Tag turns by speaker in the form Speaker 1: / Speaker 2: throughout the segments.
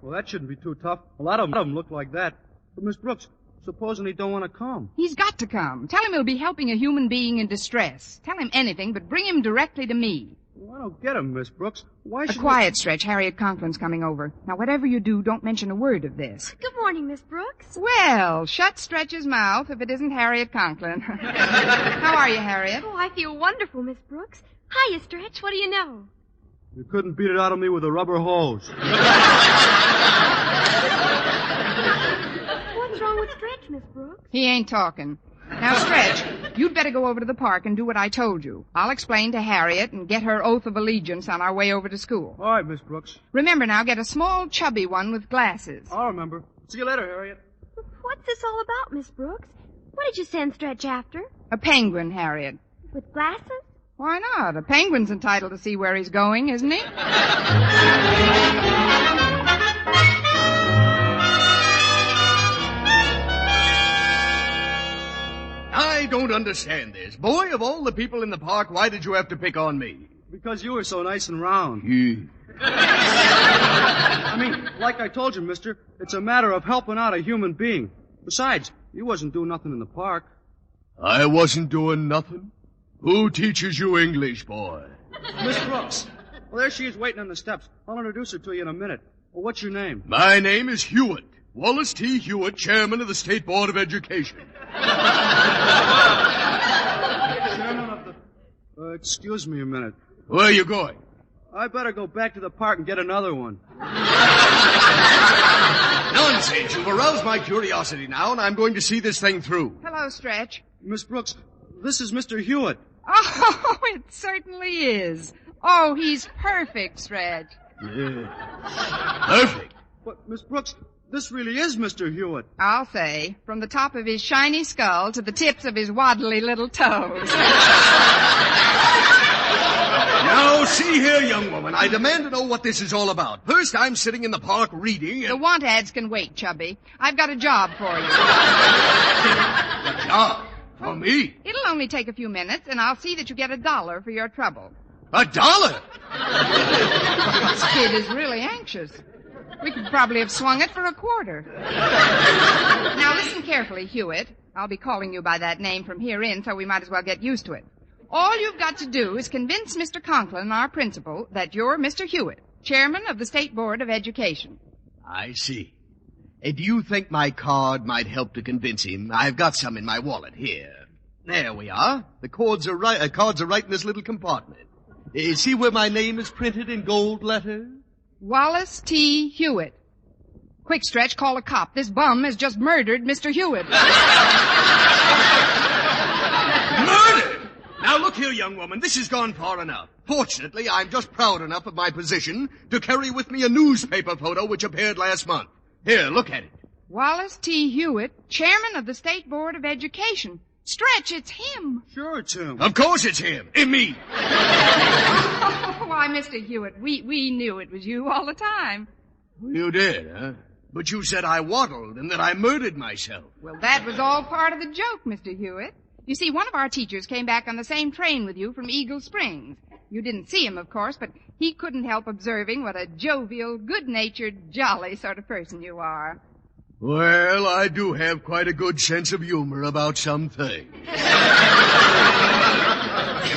Speaker 1: Well, that shouldn't be too tough. A lot of them look like that. But, Miss Brooks, supposing he don't want to come?
Speaker 2: He's got to come. Tell him he'll be helping a human being in distress. Tell him anything, but bring him directly to me.
Speaker 1: Well, I don't get him, Miss Brooks. Why
Speaker 2: A
Speaker 1: should...
Speaker 2: quiet stretch. Harriet Conklin's coming over. Now, whatever you do, don't mention a word of this.
Speaker 3: Good morning, Miss Brooks.
Speaker 2: Well, shut Stretch's mouth if it isn't Harriet Conklin. How are you, Harriet?
Speaker 3: Oh, I feel wonderful, Miss Brooks. Hiya, Stretch. What do you know?
Speaker 1: You couldn't beat it out of me with a rubber hose.
Speaker 3: What's wrong with Stretch, Miss Brooks?
Speaker 2: He ain't talking. Now, Stretch, you'd better go over to the park and do what I told you. I'll explain to Harriet and get her oath of allegiance on our way over to school.
Speaker 1: All right, Miss Brooks.
Speaker 2: Remember now, get a small, chubby one with glasses.
Speaker 1: I'll remember. See you later, Harriet.
Speaker 3: What's this all about, Miss Brooks? What did you send Stretch after?
Speaker 2: A penguin, Harriet.
Speaker 3: With glasses?
Speaker 2: Why not? A penguin's entitled to see where he's going, isn't he?
Speaker 4: I don't understand this. Boy, of all the people in the park, why did you have to pick on me?
Speaker 1: Because you were so nice and round. I mean, like I told you, mister, it's a matter of helping out a human being. Besides, you wasn't doing nothing in the park.
Speaker 4: I wasn't doing nothing. Who teaches you English, boy?
Speaker 1: Miss Brooks. Well, there she is waiting on the steps. I'll introduce her to you in a minute. Well, what's your name?
Speaker 4: My name is Hewitt. Wallace T. Hewitt, chairman of the State Board of Education.
Speaker 1: Chairman of the... Uh, excuse me a minute.
Speaker 4: Where are you going?
Speaker 1: I better go back to the park and get another one.
Speaker 4: Nonsense. You've aroused my curiosity now, and I'm going to see this thing through.
Speaker 2: Hello, Stretch.
Speaker 1: Miss Brooks, this is Mr. Hewitt.
Speaker 2: Oh, it certainly is. Oh, he's perfect, Stretch.
Speaker 4: Perfect.
Speaker 1: But, Miss Brooks, this really is Mr. Hewitt.
Speaker 2: I'll say, from the top of his shiny skull to the tips of his waddly little toes.
Speaker 4: Now, see here, young woman. I demand to know what this is all about. First, I'm sitting in the park reading
Speaker 2: The
Speaker 4: and...
Speaker 2: want ads can wait, Chubby. I've got a job for you.
Speaker 4: Ah, for me.
Speaker 2: It'll only take a few minutes, and I'll see that you get a dollar for your trouble.
Speaker 4: A dollar.
Speaker 2: This kid is really anxious. We could probably have swung it for a quarter. now listen carefully, Hewitt. I'll be calling you by that name from here in, so we might as well get used to it. All you've got to do is convince Mr. Conklin, our principal, that you're Mr. Hewitt, chairman of the State Board of Education.
Speaker 4: I see. Uh, do you think my card might help to convince him? I've got some in my wallet here. There we are. The cards are right. Uh, cards are right in this little compartment. Uh, see where my name is printed in gold letters.
Speaker 2: Wallace T. Hewitt. Quick stretch, call a cop. This bum has just murdered Mr. Hewitt.
Speaker 4: Murder! Now look here, young woman. This has gone far enough. Fortunately, I'm just proud enough of my position to carry with me a newspaper photo which appeared last month. Here, look at it.
Speaker 2: Wallace T. Hewitt, chairman of the State Board of Education. Stretch, it's him.
Speaker 1: Sure, it's him.
Speaker 4: Of course, it's him. It's me.
Speaker 2: Oh, why, Mr. Hewitt, we, we knew it was you all the time.
Speaker 4: You did, huh? But you said I waddled and that I murdered myself.
Speaker 2: Well, that was all part of the joke, Mr. Hewitt. You see, one of our teachers came back on the same train with you from Eagle Springs. You didn't see him, of course, but he couldn't help observing what a jovial, good-natured, jolly sort of person you are.
Speaker 4: Well, I do have quite a good sense of humor about some things.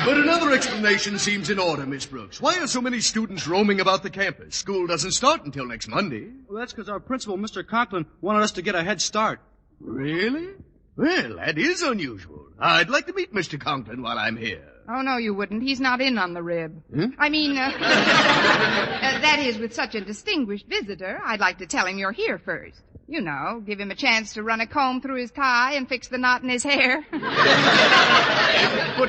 Speaker 4: but another explanation seems in order, Miss Brooks. Why are so many students roaming about the campus? School doesn't start until next Monday.
Speaker 1: Well, that's because our principal, Mr. Conklin, wanted us to get a head start.
Speaker 4: Really? Well, that is unusual. I'd like to meet Mr. Conklin while I'm here.
Speaker 2: Oh, no, you wouldn't. He's not in on the rib.
Speaker 4: Hmm?
Speaker 2: I mean, uh, uh, that is, with such a distinguished visitor, I'd like to tell him you're here first. You know, give him a chance to run a comb through his tie and fix the knot in his hair.
Speaker 4: But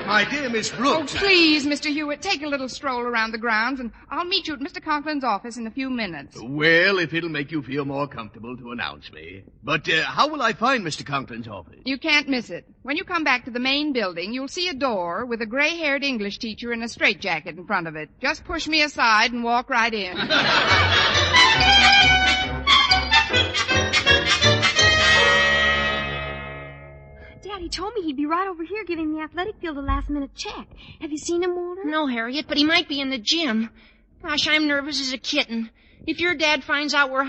Speaker 4: my dear Miss
Speaker 2: oh,
Speaker 4: Brooks,
Speaker 2: please, Mr. Hewitt, take a little stroll around the grounds, and I'll meet you at Mr. Conklin's office in a few minutes.
Speaker 4: well, if it'll make you feel more comfortable to announce me. But uh, how will I find Mr. Conklin's office?
Speaker 2: You can't miss it. When you come back to the main building, you'll see a door with a gray-haired English teacher in a straitjacket in front of it. Just push me aside and walk right in.
Speaker 3: Daddy told me he'd be right over here giving the athletic field a last minute check. Have you seen him, Walter?
Speaker 5: No, Harriet, but he might be in the gym. Gosh, I'm nervous as a kitten. If your dad finds out we're